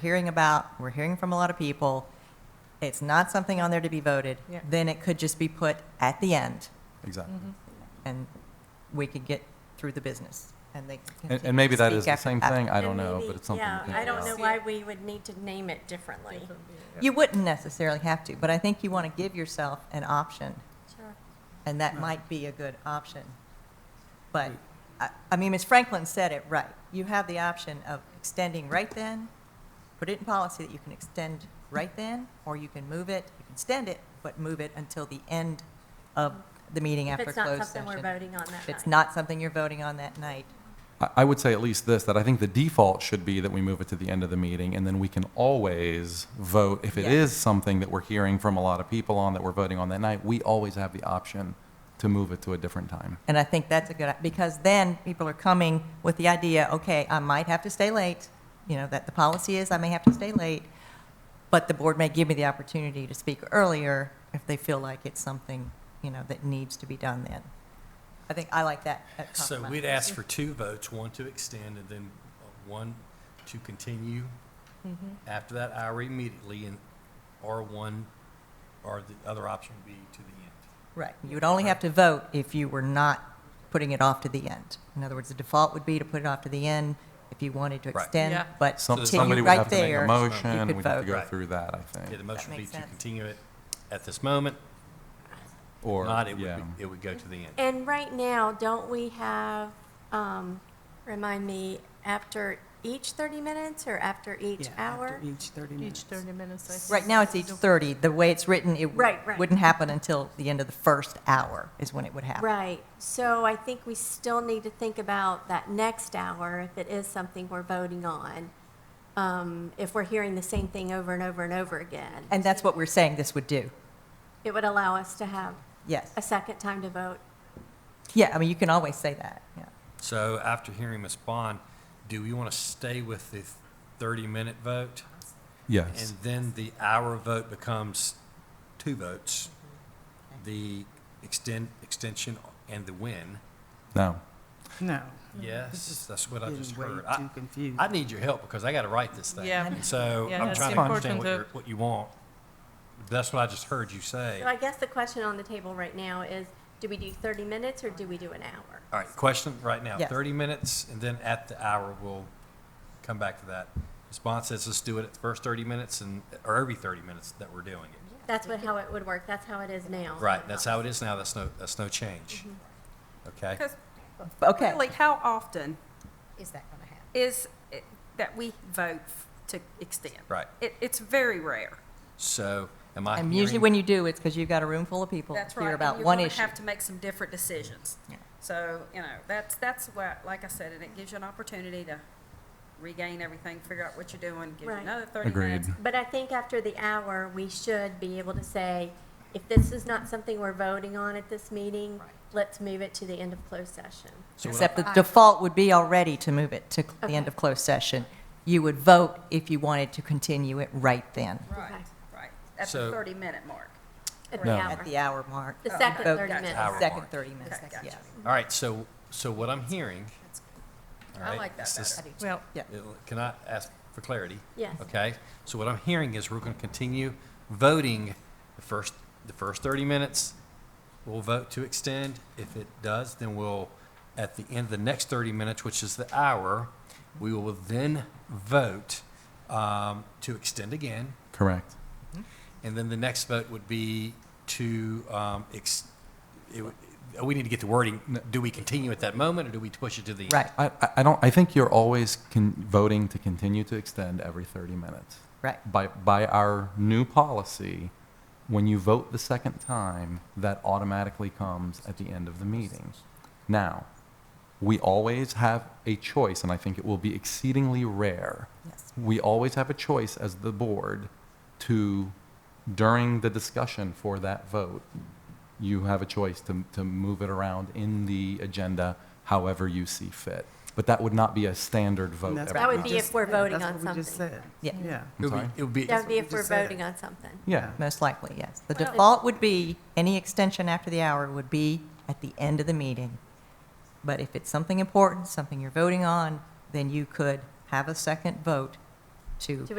hearing about, we're hearing from a lot of people, it's not something on there to be voted, Yeah. then it could just be put at the end, Exactly. Mm, and we could get through the business, and they can And, continue and maybe to that is speak the after- same after- thing, I don't And know, maybe- but it's something to think Yeah, I don't know about. why we would need to name it differently. You wouldn't necessarily have to, but I think you want to give yourself an option, Sure. and that might be a good option. But, I, I mean, Ms. Franklin said it right. You have the option of extending right then, put it in policy that you can extend right then, or you can move it, you can extend it, but move it until the end of the meeting If after it's not closed something we're session. voting on that If it's night. not something you're voting on that night, I, I would say at least this, that I think the default should be that we move it to the end of the meeting, and then we can always vote. If it Yeah. is something that we're hearing from a lot of people on, that we're voting on that night, we always have the option to move it to a different time. And I think that's a good, because then people are coming with the idea, okay, I might have to stay late, you know, that the policy is I may have to stay late, but the board may give me the opportunity to speak earlier if they feel like it's something, you know, that needs to be done then. I think I like that. that So compromise. we'd ask for two votes, one to extend and then one to continue after that hour immediately, and, or one, or the other option would be to the end. Right. You would only have to vote if you were not putting it off to the end. In other words, the default would be to put it off to the end if you wanted to Right. extend, Yeah. but Some- continue Somebody would right have to make there. a you motion, could we'd have to vote. go Right. through that, I Yeah, think. the motion would be makes to sense. continue it at this moment, Or, not it would, yeah. be- it would go to the end. And right now, don't we have, um, remind me, after each 30 minutes or after each Yeah, hour? after each 30 Each minutes. 30 minutes. I Right now, it's each 30. The way it's written, it Right, right. wouldn't happen until the end of the first hour is when it would happen. Right, so I think we still need to think about that next hour, if it is something we're voting on, um, if we're hearing the same thing over and over and over again. And that's what we're saying this would do. It would allow us to have Yes. a second time to vote. Yeah, I mean, you can always say that, yeah. So after hearing Ms. Bond, do we want to stay with the thirty-minute vote? Yes, And then the hour vote becomes two votes, Mm-hmm. the extend, extension and the win. no. No. Yes, that's what I Getting just way heard. too I, confused. I need your help because I got to write this thing. Yeah. So Yeah, I'm that's trying to understand important what, to- you're, what you want. That's what I just heard you say. So I guess the question on the table right now is, do we do 30 minutes or do we do an hour? All right, question right now. Yes. 30 minutes, and then at the hour, we'll come back to that. Response says, let's do it at the first 30 minutes, and or every 30 minutes that we're doing it. That's what, how it would work, that's how it is now. Right, that's how it is now. That's no, that's no change. Okay? Because Okay, really, how often Is that going to happen? is it that we vote f- to extend? Right. It, it's very rare. So am I and usually hearing- when you do, it's because you've got a room full of people That's to right. hear and about one You're going to issue. have to make some different decisions. Yeah. So, you know, that's, that's what, like I said, and it gives you an opportunity to regain everything, figure out what you're doing, give you Right. another 30 Agreed. minutes. But I think after the hour, we should be able to say, if this is not something we're voting on at this meeting, let's move it to the end of closed session. So what Except the Aye. default would be already to move it to the end Okay. of closed session. You would vote if you wanted to continue it right then, Right, right. At So- the 30-minute mark. At No. the at hour, the hour mark. the second Vote 30 Gotcha. minutes. Hour. the Second mark. 30 minutes, Okay, gotcha. yes. All right, so, so what I'm hearing. all I right, like that this is- better. Well, it- Uh, Can I ask for clarity? Yes. Okay, so what I'm hearing is we're going to continue voting the first, the first 30 minutes. We'll vote to extend. If it does, then we'll, at the end of the next 30 minutes, which is the hour, we will then vote um, to extend again. Correct. And then the next vote would be to, um, ex- it would- we need to get the wording. Do we continue at that moment or do we push it to the end? Right, I, I- I don't, I think you're always con- voting to continue to extend every 30 minutes. right. By, by our new policy, when you vote the second time, that automatically comes at the end of the meeting. Now, we always have a choice, and I think it will be exceedingly rare. Yes. We always have a choice as the board to, during the discussion for that vote, you have a choice to, to move it around in the agenda however you see fit. But that would not be a standard vote. And that's every what That we would time. be if just- we're yeah, voting that's on what we just something. said. Yeah. Yeah. It would be, it would be. That would be what if we we're just said. voting on something. Yeah. Most likely, yes. The Well, it- default would be, any extension after the hour would be at the end of the meeting. But if it's something important, something you're voting on, then you could have a second vote to To